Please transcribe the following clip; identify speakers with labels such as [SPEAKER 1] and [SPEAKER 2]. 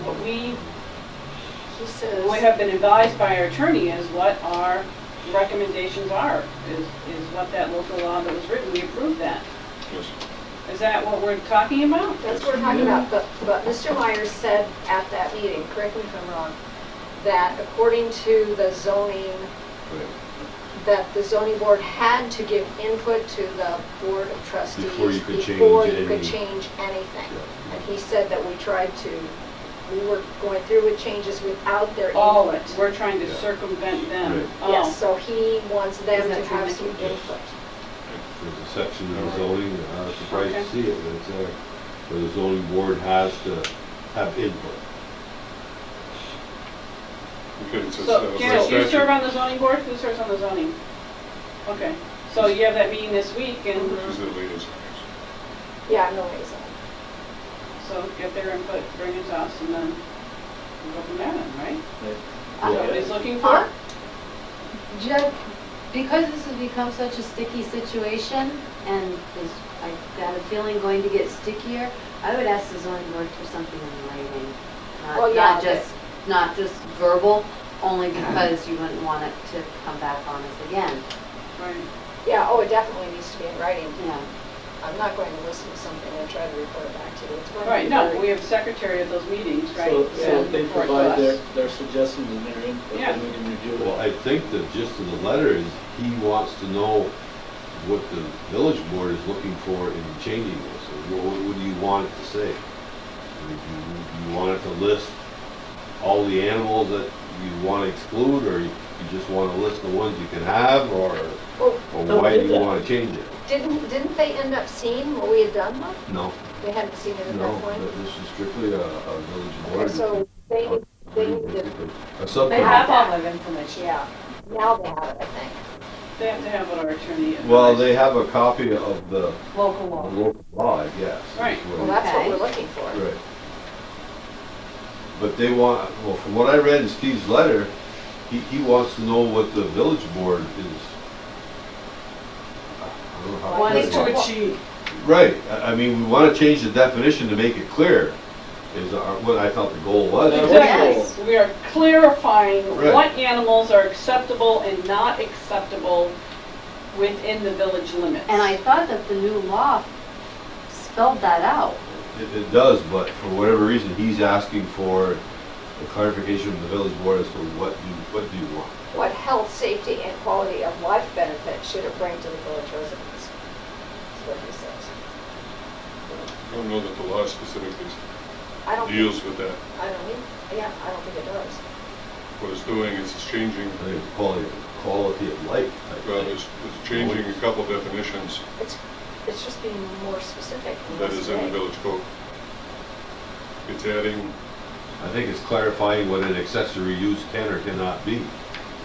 [SPEAKER 1] we,
[SPEAKER 2] He says.
[SPEAKER 1] we have been advised by our attorney is what our recommendations are, is, is what that local law that was written, we approved that.
[SPEAKER 3] Yes.
[SPEAKER 1] Is that what we're talking about?
[SPEAKER 2] That's what we're talking about, but, but Mr. Myers said at that meeting, correct me if I'm wrong, that according to the zoning, that the zoning board had to give input to the board of trustees.
[SPEAKER 4] Before you could change
[SPEAKER 2] before you could
[SPEAKER 4] any-
[SPEAKER 2] change anything.
[SPEAKER 4] Yeah.
[SPEAKER 2] And he said that we tried to, we were going through with changes without their
[SPEAKER 1] All
[SPEAKER 2] input.
[SPEAKER 1] it, we're trying to
[SPEAKER 4] Yeah.
[SPEAKER 1] circumvent them.
[SPEAKER 4] Right.
[SPEAKER 1] Oh.
[SPEAKER 2] Yes, so he wants
[SPEAKER 5] Is
[SPEAKER 2] them
[SPEAKER 5] that
[SPEAKER 2] to
[SPEAKER 5] true,
[SPEAKER 2] have
[SPEAKER 5] Mickey?
[SPEAKER 2] some input.
[SPEAKER 4] There's a section of the zoning, and I was surprised to
[SPEAKER 1] Okay.
[SPEAKER 4] see it, but it's there, where the zoning board has to have input.
[SPEAKER 3] Okay, it says, uh,
[SPEAKER 1] So,
[SPEAKER 3] by
[SPEAKER 1] Janet, you serve
[SPEAKER 3] statute-
[SPEAKER 1] on the zoning board, who serves on the zoning? Okay, so you have that meeting this week,
[SPEAKER 3] She's
[SPEAKER 1] and
[SPEAKER 3] the liaison.
[SPEAKER 2] Yeah, I'm no liaison.
[SPEAKER 1] so get their input, bring it to us, and then we'll go from there, then, right?
[SPEAKER 2] Uh,
[SPEAKER 1] Nobody's looking
[SPEAKER 2] Huh?
[SPEAKER 1] for?
[SPEAKER 5] Jeff, because this has become such a sticky situation, and is, I got a feeling going to get stickier, I would ask the zoning board for something in writing. Not-
[SPEAKER 2] Well, yeah,
[SPEAKER 5] Not just, not just verbal, only because you wouldn't want it to come back on us again,
[SPEAKER 1] Right.
[SPEAKER 2] Yeah, oh, it definitely needs to be in writing.
[SPEAKER 5] you know.
[SPEAKER 2] I'm not going to listen to something and try to report it back to you. It's going to be
[SPEAKER 1] Right, no,
[SPEAKER 2] very-
[SPEAKER 1] we have secretary of those meetings, right?
[SPEAKER 6] So, so
[SPEAKER 1] Send
[SPEAKER 6] if they
[SPEAKER 1] report to
[SPEAKER 6] provide their,
[SPEAKER 1] us.
[SPEAKER 6] their suggestions and their input,
[SPEAKER 1] Yeah.
[SPEAKER 6] then we can review
[SPEAKER 4] Well,
[SPEAKER 6] it.
[SPEAKER 4] I think the gist of the letter is he wants to know what the village board is looking for in changing this. Or What, what do you want it to say? I mean, Do you, you want it to list all the animals that you want to exclude, or you you just want to list the ones you can have, or,
[SPEAKER 2] Well,
[SPEAKER 4] or
[SPEAKER 6] Don't
[SPEAKER 4] why
[SPEAKER 6] do
[SPEAKER 4] do you
[SPEAKER 6] that.
[SPEAKER 4] want to change it?
[SPEAKER 2] Didn't, didn't they end up seeing what we had done? though?
[SPEAKER 4] No,
[SPEAKER 2] They hadn't seen it at
[SPEAKER 4] no,
[SPEAKER 2] that point?
[SPEAKER 4] th- this is strictly a, a village
[SPEAKER 2] Okay,
[SPEAKER 4] board.
[SPEAKER 2] So they, they needed,
[SPEAKER 4] A subcommittee.
[SPEAKER 5] They have all that information.
[SPEAKER 2] yeah, now they have it, I think.
[SPEAKER 1] They have to have what our attorney is.
[SPEAKER 4] Well, they have a copy of the
[SPEAKER 5] Local
[SPEAKER 4] the
[SPEAKER 5] law.
[SPEAKER 4] local law, I guess. is
[SPEAKER 1] Right.
[SPEAKER 4] what
[SPEAKER 2] Well,
[SPEAKER 4] it
[SPEAKER 2] that's what
[SPEAKER 5] Okay.
[SPEAKER 2] we're looking for.
[SPEAKER 4] Right. But they want, well, from what I read in Steve's letter, he, he wants to know what the village board is. I don't know how
[SPEAKER 5] Wants
[SPEAKER 4] put it.
[SPEAKER 5] to-
[SPEAKER 6] achieve.
[SPEAKER 4] Right, I, I mean, we wanna change the definition to make it clear, is our- what I thought the goal was.
[SPEAKER 6] Exactly. Yes.
[SPEAKER 1] Exactly, we are clarifying
[SPEAKER 4] Right.
[SPEAKER 1] what animals are acceptable and not acceptable within the village limits.
[SPEAKER 5] And I thought that the new law spelled that out.
[SPEAKER 4] It, it does, but for whatever reason, he's asking for a clarification from the village board as to what do, what do you want?
[SPEAKER 2] What health, safety, and quality of life benefit should it bring to the village residents? That's what he says.
[SPEAKER 3] I don't know that the law specifically
[SPEAKER 2] I don't, think-
[SPEAKER 3] deals with that.
[SPEAKER 2] I don't, think- yeah, I don't think it does.
[SPEAKER 3] What it's doing is it's changing,
[SPEAKER 4] I think it's quality, quality of life. I think.
[SPEAKER 3] well, it's, it's changing a couple definitions
[SPEAKER 2] It's, it's just being more specific. in
[SPEAKER 3] that
[SPEAKER 2] this
[SPEAKER 3] is in the
[SPEAKER 2] way.
[SPEAKER 3] village code. It's adding,
[SPEAKER 4] I think it's clarifying what an accessory use can or cannot be.